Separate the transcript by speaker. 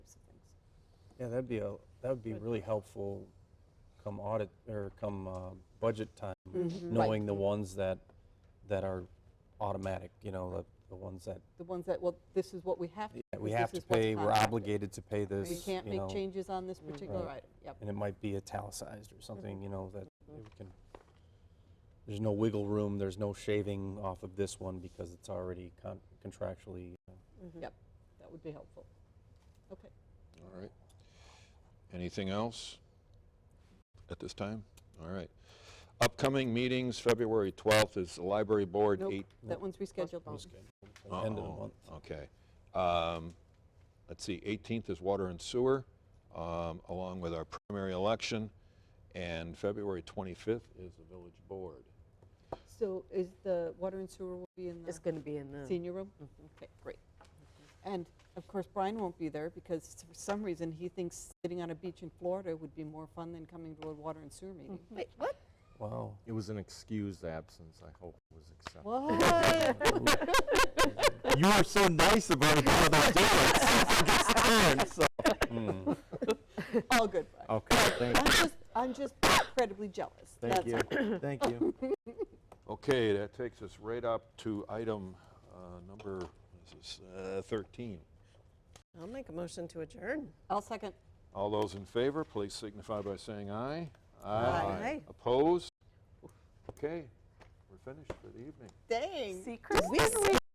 Speaker 1: Yeah, that'd be a, that would be
Speaker 2: Good.
Speaker 1: really helpful come audit, or come uh, budget time,
Speaker 3: Mm-hmm.
Speaker 2: Mm-hmm.
Speaker 1: knowing the ones that, that are automatic, you know, the, the ones that
Speaker 2: The ones that, well, this is what we have to.
Speaker 1: yeah, we
Speaker 2: because
Speaker 1: have
Speaker 2: this
Speaker 1: to
Speaker 2: is what's
Speaker 1: pay, we're
Speaker 2: contracted.
Speaker 1: obligated to pay this,
Speaker 2: We can't
Speaker 1: you
Speaker 2: make
Speaker 1: know,
Speaker 2: changes on this
Speaker 3: Mm-hmm.
Speaker 2: particular
Speaker 1: Right.
Speaker 2: item. Yep.
Speaker 1: And it might be italicized or
Speaker 2: Mm-hmm.
Speaker 1: something, you know, that it can, there's no wiggle room, there's no shaving off of this one because it's already con- contractually. uh,
Speaker 2: That would be helpful. Okay.
Speaker 4: All right. Anything else at this time? All right. Upcoming meetings, February 12th is the Library Board,
Speaker 2: Nope,
Speaker 4: 8,
Speaker 2: That one's rescheduled.
Speaker 1: at the End of the
Speaker 4: Uh-oh.
Speaker 1: month.
Speaker 4: okay. Um, Let's see, 18th is Water and Sewer, um, along with our primary election, and February 25th is the Village Board.
Speaker 2: So is the water and sewer will be in
Speaker 3: It's
Speaker 2: the
Speaker 3: going to be in Mm-hmm. the.
Speaker 2: senior room? Okay, great. And of course, Brian won't be there because for some reason he thinks sitting on a beach in Florida would be more fun than coming to a water and sewer meeting.
Speaker 3: Wait, what?
Speaker 1: Wow.
Speaker 5: It was an excused absence. I hope it was accepted.
Speaker 2: What?
Speaker 5: You were so nice about how they do it.
Speaker 1: Mm.
Speaker 2: All good, Brian.
Speaker 5: Okay, thank
Speaker 2: I'm
Speaker 5: you.
Speaker 2: just, I'm just incredibly jealous.
Speaker 5: Thank
Speaker 2: That's all.
Speaker 5: you. Thank you.
Speaker 4: Okay, that takes us right up to item uh, number, this is uh, 13.
Speaker 3: I'll make a motion to adjourn.
Speaker 2: I'll second.
Speaker 4: All those in favor, please signify by saying aye.
Speaker 3: Aye.
Speaker 4: Opposed? Okay, we're finished for the evening.
Speaker 2: Dang.
Speaker 3: We